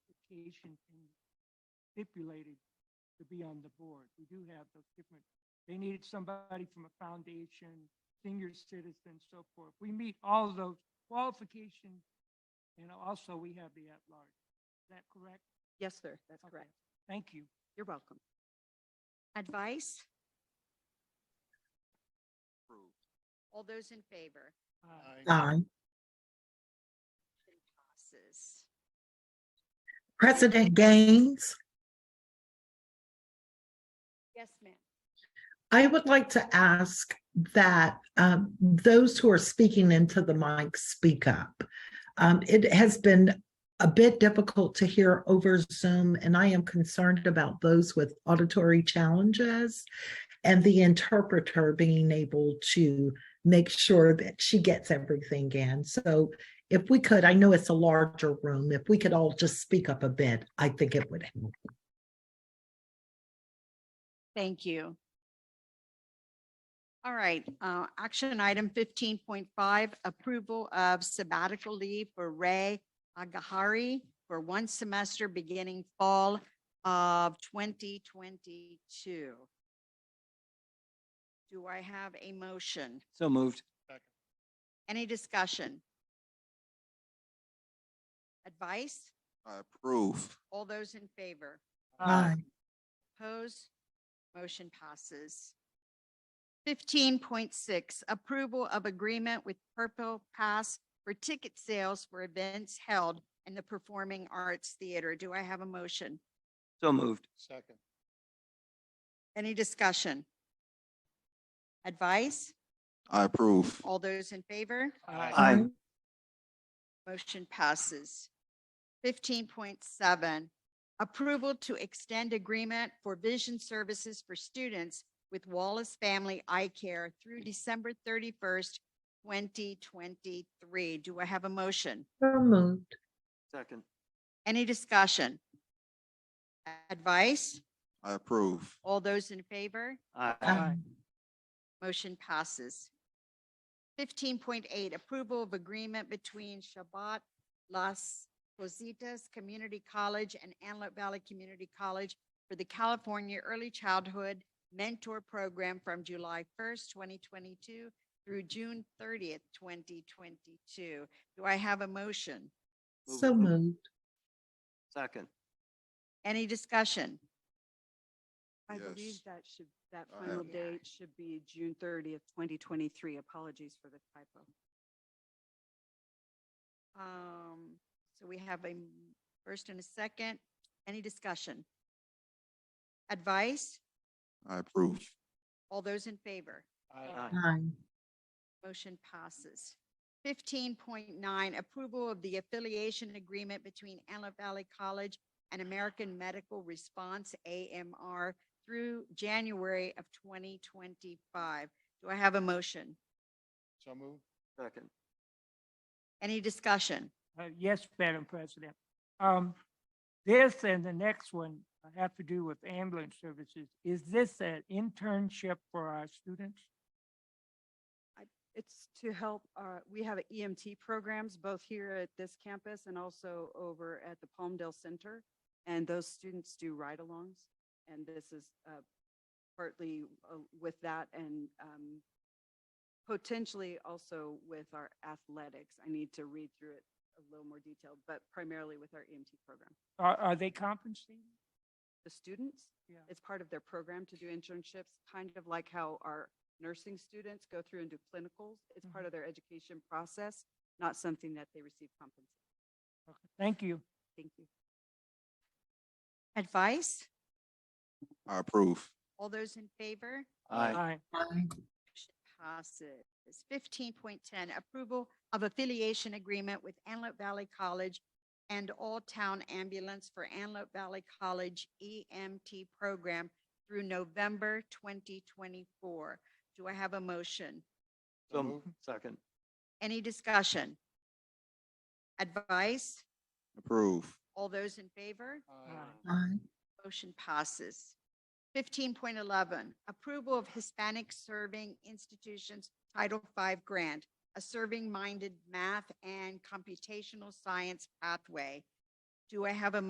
application can- stipulated to be on the board. We do have those different, they needed somebody from a foundation, senior citizen, so forth. We meet all of those qualifications, and also we have the at-large. Is that correct? Yes, sir, that's Okay. correct. Thank you. You're welcome. Advice? Approved. All those in favor? Uh, Aye. Motion Passes. President Gaines, Yes, ma'am. I would like to ask that um, those who are speaking into the mic speak up. Um, It has been a bit difficult to hear over Zoom, and I am concerned about those with auditory challenges and the interpreter being able to make sure that she gets everything in. So if we could, I know it's a larger room, if we could all just speak up a bit, I think it would help. Thank you. All right, uh, action item fifteen point five, approval of sabbatical leave for Ray Agahari for one semester beginning fall of twenty twenty-two. Do I have a motion? So moved. Any discussion? Advice? I approve. All those in favor? Aye. Opposed? Motion passes. Fifteen point six, approval of agreement with Purple Pass for ticket sales for events held in the Performing Arts Theater. Do I have a motion? So moved. Second. Any discussion? Advice? I approve. All those in favor? Aye. Motion passes. Fifteen point seven, approval to extend agreement for vision services for students with Wallace Family Eye Care through December thirty-first, twenty twenty-three. Do I have a motion? So moved. Second. Any discussion? Advice? I approve. All those in favor? Aye. Aye. Motion passes. Fifteen point eight, approval of agreement between Shabbat Las Positas Community College and Antelope Valley Community College for the California Early Childhood Mentor Program from July first, twenty twenty-two through June thirtieth, twenty twenty-two. Do I have a motion? Move So it. moved. Second. Any discussion? I believe Yes. that should, that I final have- date should be June thirtieth, twenty twenty-three. Apologies for the typo. Um, so we have a m- first and a second. Any discussion? Advice? I approve. All those in favor? Aye. Aye. Motion passes. Fifteen point nine, approval of the affiliation agreement between Antelope Valley College and American Medical Response, AMR, through January of twenty twenty-five. Do I have a motion? So moved. Second. Any discussion? Uh, Yes, Madam President. Um, This and the next one have to do with ambulance services. Is this an internship for our students? It's to help, uh, we have EMT programs both here at this campus and also over at the Palmdale Center. And those students do ride-alongs. And this is, uh, partly uh, with that and, um, potentially also with our athletics. I need to read through it a little more detailed, but primarily with our EMT program. Are, are they compensated? the students. Yeah. It's part of their program to do internships, kind of like how our nursing students go through and do clinicals. It's part of their education process, not something that they receive compensation. Okay, Thank you. Thank you. Advice? I approve. All those in favor? Aye. Aye. Motion passes. Fifteen point ten, approval of affiliation agreement with Antelope Valley College and All Town Ambulance for Antelope Valley College EMT program through November twenty twenty-four. Do I have a motion? So So moved. moved. Second. Any discussion? Advice? Approve. All those in favor? Aye. Aye. Motion passes. Fifteen point eleven, approval of Hispanic Serving Institutions Title V Grant, a serving-minded math and computational science pathway. Do I have a